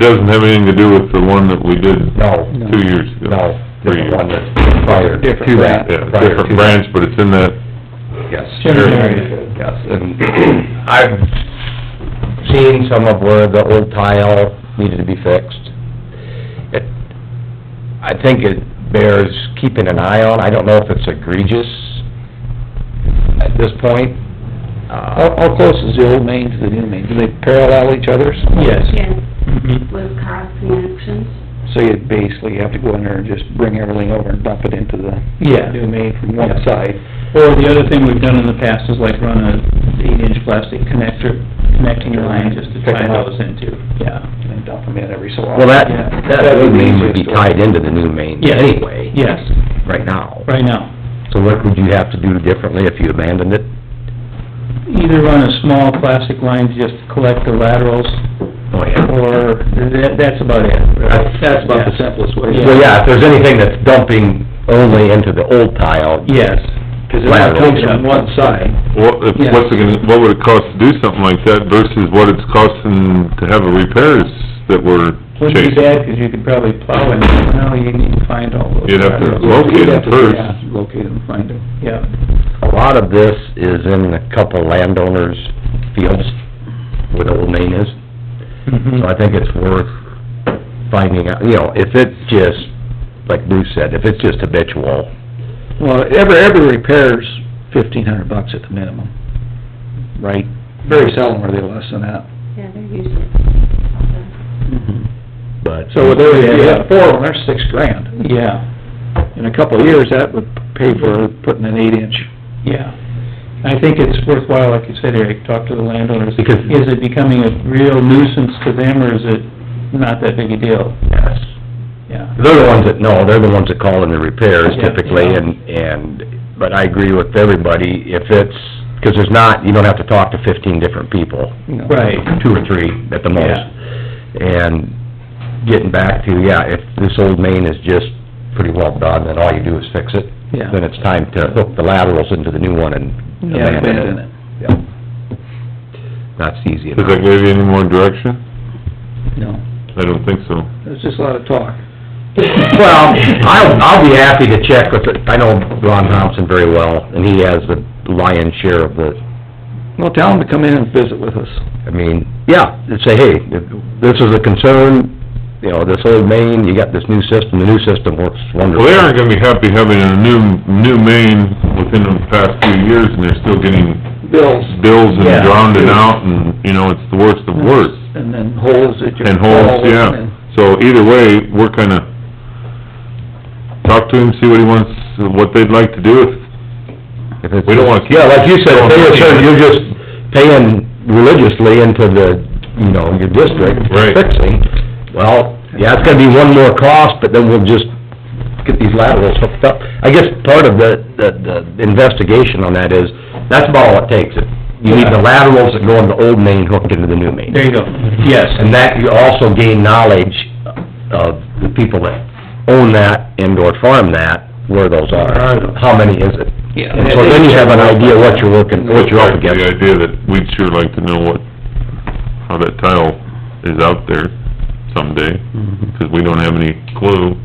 Doesn't have anything to do with the one that we did No. two years ago. No, Three different years. one that's prior to Yeah, that. prior to different branch, but it's in that, that, Yes. General area. Yes, and I've seen some of where the old tile needed to be fixed. It, I think it bears keeping an eye on. I don't know if it's egregious at this point. How, Uh, how close is the old main to the new main? Do they parallel each other? Yes. Yes, with cross connections. So you basically have to go in there and just bring everything over and dump it into the Yeah. new main from one Yeah. side. Or the other thing we've done in the past is like run a eight-inch plastic connector, connecting line just to tie those into, yeah. And then dump them in every so often. well, that, Yeah. that new main would be tied into the new main Yes. anyway, Yes, right now. right now. So what would you have to do differently if you abandoned it? Either run a small plastic line to just collect the laterals, Oh, or that, that's about it. That's about the simplest way. Yeah. So, yeah, if there's anything that's dumping only into the old tile, Yes, Cause it only comes from one side. what, if- Yeah. what's it gonna, what would it cost to do something like that versus what it's costing to have a repairs that we're wouldn't chasing? be bad, 'cause you could probably plow in, no, you need to find all those. You'd have to laterals. locate You'd have it to- first. yeah, Locate them, find them, yeah. a lot of this is in a couple landowners' fields where the old main is. So I think it's worth finding out, you know, if it's just, like Bruce said, if it's just habitual, Well, every, every repair's fifteen hundred bucks at the minimum, right? Very seldom are they less than that. Yeah, they're usually. but... So with every, if you have four of them, there's six grand. Yeah. In a couple of years, that would pay for putting an eight inch. Yeah, I think it's worthwhile, like you said, Eric, talk to the landowners. Because- Is it becoming a real nuisance to them, or is it not that big a deal? Yes. Yeah. They're the ones that know, they're the ones that call in the repairs Yeah. typically, and, and, but I agree with everybody, if it's, because there's not, you don't have to talk to fifteen different people. Right. two or three at the most. And getting back to, yeah, if this old main is just pretty well done, then all you do is fix it. Yeah. Then it's time to hook the laterals into the new one and Yeah, abandon abandon it. it. Yeah. That's easy Does enough. that give you any more direction? No, I don't think so. it's just a lot of talk. Well, I'll, I'll be happy to check with, it. I know Ron Thompson very well, and he has the lion's share of the Well, tell them to come in and visit with us. I mean, yeah, and say, hey, if this is a concern, you know, this old main, you got this new system, the new system works Well, wonderful. they aren't gonna be happy having a new, new main within the past few years and they're still getting Bills. bills and Yeah. drowning out and, you know, it's the worst of worst. And then holes that you. And holes, fall in yeah. and- So either way, we're kinda, talk to him, see what he wants, what they'd like to do. If If it's- We don't wanna keep- Yeah, like you said, if they were saying you're just paying religiously into the, you know, your district Right. fixing. Well, yeah, it's gonna be one more cost, but then we'll just get these laterals hooked up. I guess part of the, the, the investigation on that is, that's about all it takes. You need the laterals that go in the old main hooked into the new main. There you go, yes, And that, you also gain knowledge of the people that own that and/or farm that, where those are. How many is it? Yeah. And so then you have an idea what you're working, what you're up The against. idea that we'd sure like to know what, how that tile is out there someday, 'cause we don't have any clue.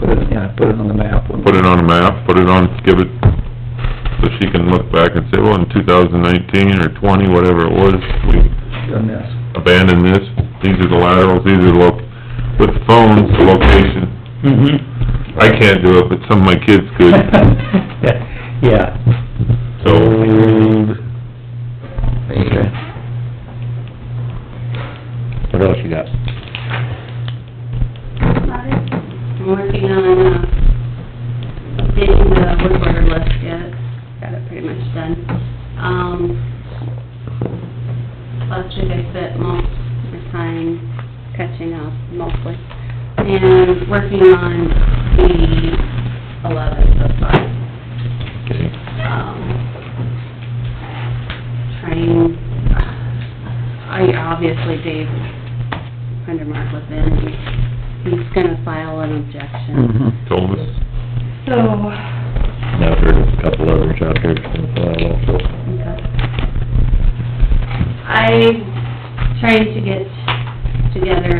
Put it, yeah, put it on the map. Put it on a map, put it on, give it, so she can look back and say, well, in two thousand nineteen or twenty, whatever it was, we On this. abandoned this, these are the laterals, these are the loc, with the phones, the location. Mm-hmm. I can't do it, but some of my kids could, Yeah. so, Okay. What else you got? I'm working on, uh, updating the work order list yet, got it pretty much done. Um, last week I spent most of the time catching up mostly, and working on the eleven so far. okay. um, trying, I, obviously Dave Hundermark was in, and he's gonna file an objection. Mm-hmm. told us. So, Now, there's a couple others out there Uh, also. okay. I'm trying to get together